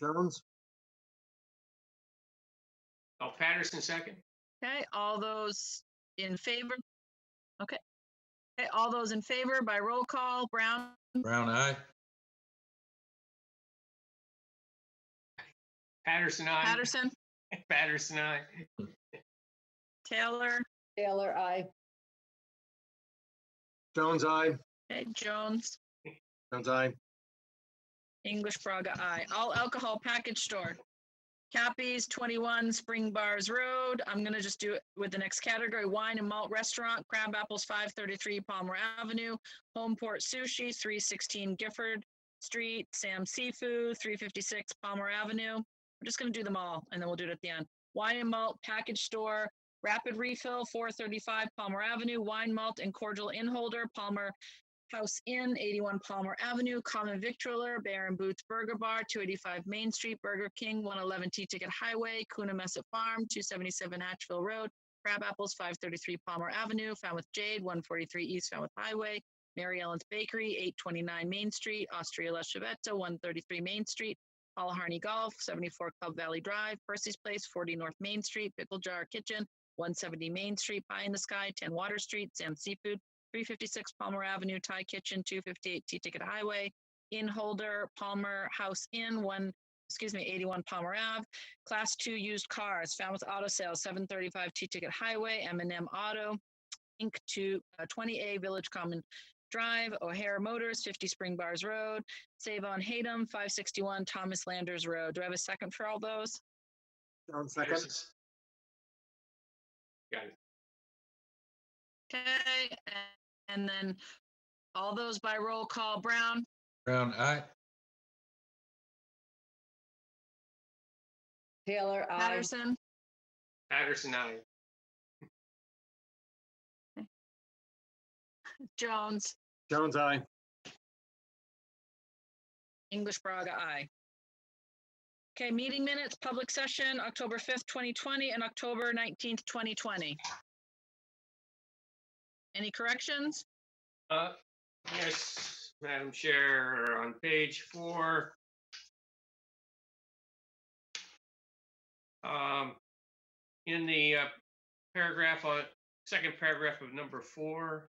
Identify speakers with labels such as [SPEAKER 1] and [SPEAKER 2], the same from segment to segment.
[SPEAKER 1] Jones?
[SPEAKER 2] Oh, Patterson second.
[SPEAKER 3] Okay, all those in favor? Okay. Okay, all those in favor by roll call, Brown,
[SPEAKER 4] Brown eye.
[SPEAKER 2] Patterson, I.
[SPEAKER 3] Patterson,
[SPEAKER 2] Patterson, I.
[SPEAKER 3] Taylor,
[SPEAKER 5] Taylor, I.
[SPEAKER 1] Jones, aye.
[SPEAKER 3] okay, Jones,
[SPEAKER 1] Jones, aye.
[SPEAKER 3] English Braga, I. All alcohol package store. Cappies, 21 Spring Bars Road. I'm going to just do it with the next category, wine and malt restaurant, Crab Apples, 533 Palmer Avenue, Homeport Sushi, 316 Gifford Street, Sam Seafood, 356 Palmer Avenue. We're just going to do them all, and then we'll do it at the end. Wine and malt package store, Rapid Refill, 435 Palmer Avenue, Wine Malt and Cordial Inn Holder, Palmer House Inn, 81 Palmer Avenue, Common Victualler, Baron Boots Burger Bar, 285 Main Street, Burger King, 111 T-Ticket Highway, Kuna Mesa Farm, 277 Hatchville Road, Crab Apples, 533 Palmer Avenue, Falmouth Jade, 143 East Falmouth Highway, Mary Ellen's Bakery, 829 Main Street, Austria La Chavetta, 133 Main Street, Paul Harney Golf, 74 Club Valley Drive, Percy's Place, 40 North Main Street, Pickle Jar Kitchen, 170 Main Street, Pie in the Sky, 10 Water Street, Sam Seafood, 356 Palmer Avenue, Thai Kitchen, 258 T-Ticket Highway, Inn Holder, Palmer House Inn, 1, excuse me, 81 Palmer Ave, Class 2 Used Cars, Falmouth Auto Sales, 735 T-Ticket Highway, m and M Auto, Inc., to uh, 20A Village Common Drive, O'Hare Motors, 50 Spring Bars Road, Save on Hatem, 561 Thomas Landers Road. Do I have a second for all those?
[SPEAKER 1] Jones, second.
[SPEAKER 2] Patterson's- Got it.
[SPEAKER 3] Okay, a- and then all those by roll call, Brown,
[SPEAKER 4] Brown eye.
[SPEAKER 5] Taylor, I.
[SPEAKER 3] Patterson,
[SPEAKER 2] Patterson, I.
[SPEAKER 3] Jones,
[SPEAKER 1] Jones, aye.
[SPEAKER 3] English Braga, aye. Okay, meeting minutes, public session, October 5th, 2020 and October 19th, 2020. Any corrections?
[SPEAKER 2] Uh, yes, Madam Chair, on page four. Um, in the uh, paragraph on, second paragraph of number four.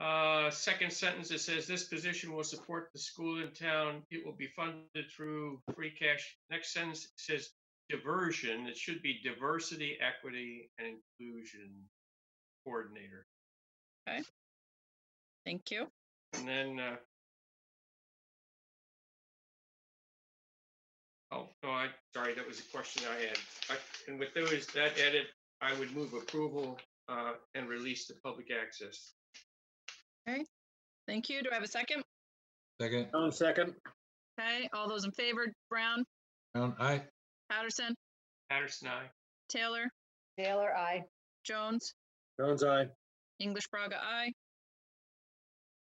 [SPEAKER 2] Uh, second sentence, it says this position will support the school in town. It will be funded through free cash. Next sentence says diversion. It should be diversity, equity, and inclusion coordinator.
[SPEAKER 3] Thank you.
[SPEAKER 2] And then, uh, oh, no, I, sorry, that was a question I had. I- And with those, that edit, I would move approval, uh, and release the public access.
[SPEAKER 3] Thank you. Do I have a second?
[SPEAKER 4] Second.
[SPEAKER 1] Jones, second.
[SPEAKER 3] Okay, all those in favor, Brown,
[SPEAKER 4] Brown eye.
[SPEAKER 3] Patterson,
[SPEAKER 2] Patterson, I.
[SPEAKER 3] Taylor,
[SPEAKER 5] Taylor, I.
[SPEAKER 3] Jones,
[SPEAKER 1] Jones, aye.
[SPEAKER 3] English Braga, aye.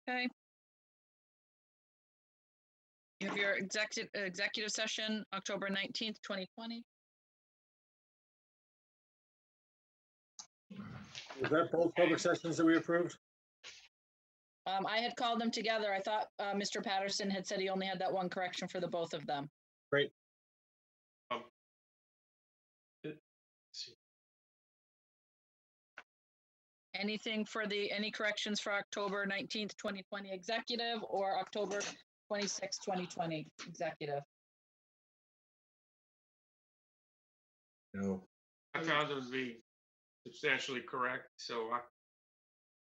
[SPEAKER 3] Okay. You have your executive, executive session, October 19th, 2020.
[SPEAKER 1] Was that both public sessions that we approved?
[SPEAKER 3] Um, I had called them together. I thought, uh, Mr. Patterson had said he only had that one correction for the both of them. Anything for the, any corrections for October nineteenth, twenty twenty executive or October twenty-sixth, twenty twenty executive?
[SPEAKER 4] No.
[SPEAKER 2] I found those to be substantially correct, so I,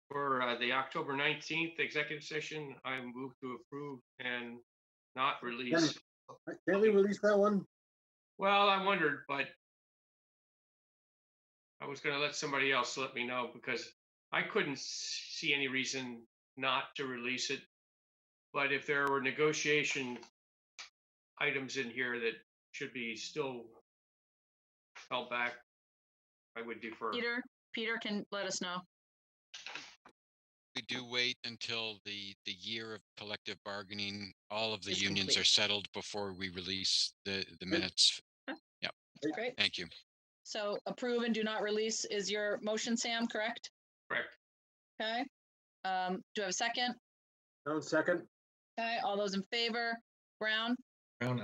[SPEAKER 2] for, uh, the October nineteenth executive session, I move to approve and not release.
[SPEAKER 1] Can't we release that one?
[SPEAKER 2] Well, I wondered, but I was gonna let somebody else let me know because I couldn't see any reason not to release it. But if there were negotiation items in here that should be still held back, I would defer.
[SPEAKER 3] Peter, Peter can let us know.
[SPEAKER 6] we do wait until the, the year of collective bargaining, all of the
[SPEAKER 3] Is
[SPEAKER 6] unions are
[SPEAKER 3] complete.
[SPEAKER 6] settled before we release the, the minutes.
[SPEAKER 3] Great.
[SPEAKER 6] Thank you.
[SPEAKER 3] So approve and do not release is your motion, Sam, correct?
[SPEAKER 2] Correct.
[SPEAKER 3] Okay. Um, do I have a second?
[SPEAKER 1] Jones, second.
[SPEAKER 3] Okay, all those in favor? Brown?
[SPEAKER 4] Brown